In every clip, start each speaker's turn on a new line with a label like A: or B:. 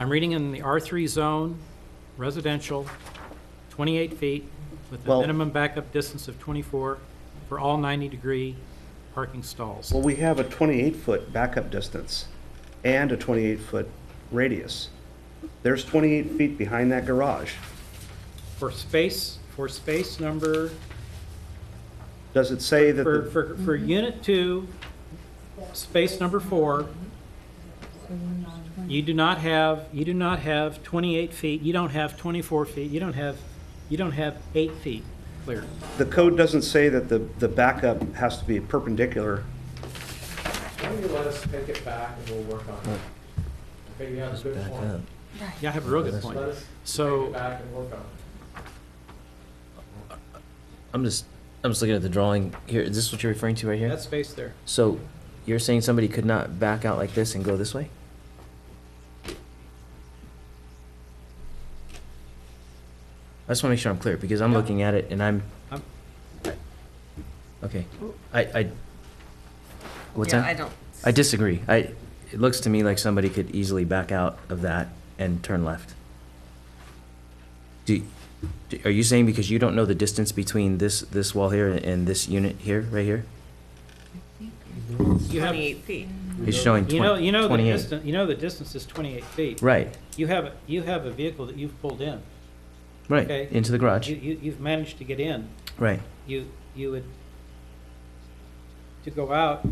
A: I'm reading in the R3 zone, residential, 28 feet with a
B: Well-
A: minimum backup distance of 24 for all 90-degree parking stalls.
B: Well, we have a 28-foot backup distance and a 28-foot radius. There's 28 feet behind that garage.
A: For space, for space number,
B: Does it say that,
A: for,
B: the-
A: for, for unit two, space number four, you do not have, you do not have 28 feet, you don't have 24 feet, you don't have, you don't have eight feet clear.
B: the code doesn't say that the, the backup has to be perpendicular?
C: Why don't you let us take it back and we'll work on it? Okay, you have a good
D: Back
C: point.
D: up.
A: Yeah, I have a real good
C: Let
A: point.
C: us take
A: So.
C: it back and work on it.
D: I'm just, I'm just looking at the drawing here. Is this what you're referring to right here?
A: That space there.
D: So you're saying somebody could not back out like this and go this way? I just want to make sure I'm clear because I'm
A: Yeah.
D: looking at it and I'm,
A: I'm-
D: okay. I, I, what's
E: Yeah,
D: that?
E: I don't.
D: I disagree. I, it looks to me like somebody could easily back out of that and turn left. Do, do- are you saying because you don't know the distance between this, this wall here and this unit here, right here?
A: You have,
E: Twenty-eight feet.
D: It's showing
A: Mm-hmm. you know, you
D: twenty,
A: know the
D: twenty-eight.
A: distance, you know the distance is 28 feet.
D: Right,
A: You have, you have a vehicle that you've pulled in.
D: right,
A: Okay.
D: into the garage,
A: You, you, you've managed to get in.
D: right.
A: You, you would, to go out,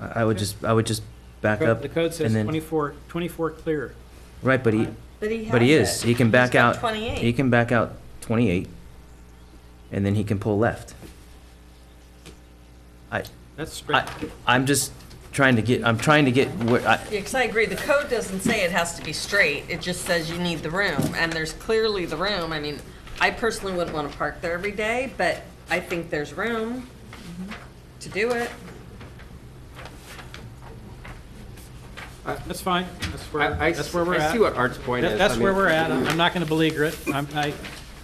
D: I, I would just, I would just back up
A: the code
D: and
A: says
D: then,
A: 24, 24 clear.
D: right, but he,
E: But he
D: but he
E: has
D: is,
E: it.
D: he can
E: He's
D: back out,
E: got
D: he
E: Twenty-eight.
D: can back out twenty-eight and then he can pull left. I,
A: That's straight.
D: I, I'm just trying to get, I'm trying to get where, I,
E: Yeah, 'cause I agree, the code doesn't say it has to be straight, it just says you need the room, and there's clearly the room, I mean, I personally wouldn't wanna park there every day, but I think there's room Mm-hmm. to do it.
A: That's fine. That's where,
F: I, I
A: that's where
F: s-
A: we're
F: I
A: at.
F: see what Art's point
A: That-
F: is.
A: That's
F: I
A: where
F: mean,
A: we're at. I'm I'm not going to beleaguer it. I'm, I,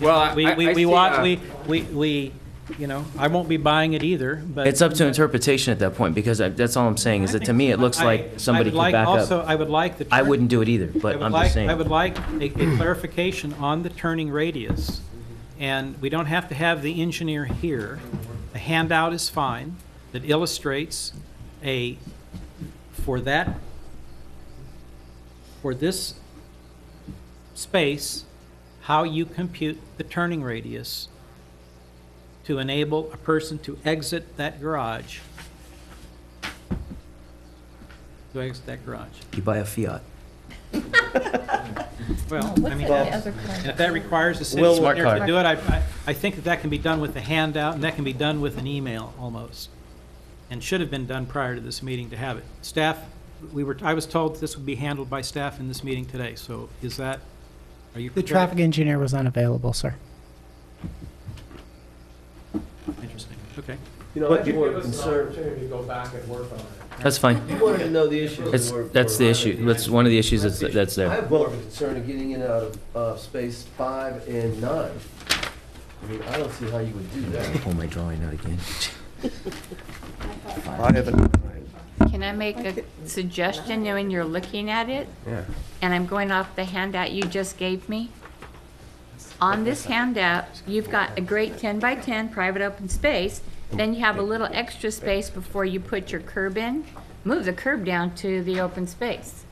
F: Well, I,
A: we,
F: I- I
A: we, we
F: see,
A: watch,
F: uh,
A: we, we, we, you know, I won't be buying it either, but.
D: It's up to interpretation at that point, because I- that's all I'm saying, is that to me, it looks
A: I-
D: like somebody
A: I would
D: could
A: like
D: back
A: Also,
D: up.
A: I would like the.
D: I
A: turn-
D: wouldn't do it either,
A: I
D: but
A: would
D: I'm
A: like-
D: just saying.
A: I would like a a clarification on the turning radius. And we don't have to have the engineer here. A handout is fine that illustrates a, for that, for this space, how you compute the turning radius to enable a person to exit that garage. To exit that garage.
D: You buy a Fiat.
A: Well, I
G: Oh, What's
A: mean,
G: the
A: that's-
G: other
A: and
G: kind?
A: if that requires a city
B: Will-
D: Smart
A: engineer to
D: card.
A: do it, I, I- I think that that can be done with a handout, and that can be done with an email, almost. And should have been done prior to this meeting to have it. Staff, we were, I was told this would be handled by staff in this meeting today, so is that, are you
H: The
A: prepared?
H: traffic engineer was unavailable, sir.
A: Interesting, okay.
C: You know,
B: But
C: that
B: you-
C: give us an opportunity to go back and work on it.
D: That's fine.
I: You wanted to know the issues. that
D: It's,
I: were-
D: that's the
I: were-
D: issue. That's one of the issues that's, that's
I: I
D: there.
I: have more of a concern of getting in and out of, uh, space five and nine. I mean, I don't see how you would do that.
D: Pull my drawing out again.
B: Five and nine.
G: Can I make a suggestion when you're looking at it? And I'm going off the handout you just gave me. On this handout, you've got a great 10 by 10 private open space, then you have a little extra space before you put your curb in. Move the curb down to the open space.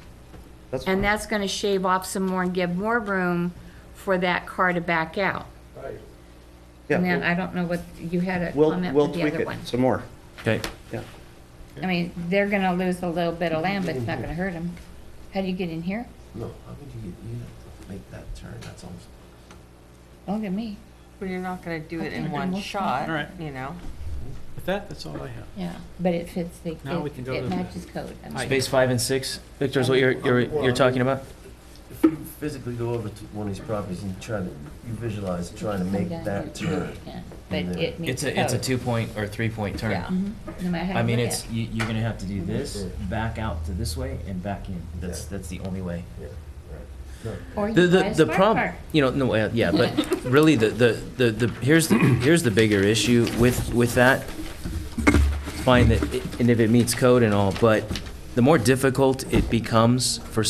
B: That's
G: And
B: fine.
G: that's going to shave off some more and give more room for that car to back out.
C: Right.
G: And
B: Yeah,
G: then I don't know what, you had a
B: We'll,
G: comment
B: we'll
G: with the
B: tweak
G: other
B: it
G: one.
B: some more.
D: Okay,
B: Yeah.
G: I mean, they're gonna lose a little bit of land, but it's not gonna hurt them. How do you get in here?
I: No, how could you get, you have to make that turn, that's almost.
G: Don't get me.
E: Well, you're not gonna do it in
G: Okay,
E: one
G: we'll-
E: shot,
A: all right.
E: you know?
A: With that, that's all I have.
G: Yeah, but it fits the,
A: Now we can
G: it
A: go to
G: it
A: the-
G: matches code. I mean,
A: Hi.
D: space five and six. Victor, is what you're, you're, you're talking about?
I: If you physically go over to one of these properties and try to, you visualize trying to make
G: Sometimes
I: that
G: it's-
I: turn.
G: yeah, But it
D: It's
G: meets code.
D: a, it's a two-point or three-point
E: Yeah.
D: turn.
G: Mhm, No matter how
D: I
G: you
D: mean,
G: look
D: it's,
G: at it.
D: you, you're gonna have to do this, back out to this way and back in. That's, that's the only way.
I: Yeah, right. No.
G: Or you
D: The,
G: buy
D: the,
G: a
D: the
G: smart
D: problem,
G: car.
D: you know, no, uh, yeah, but really, the, the, the, the here's, the here's the bigger issue with, with that. Fine that, it- and if it meets code and all, but the the more difficult it becomes for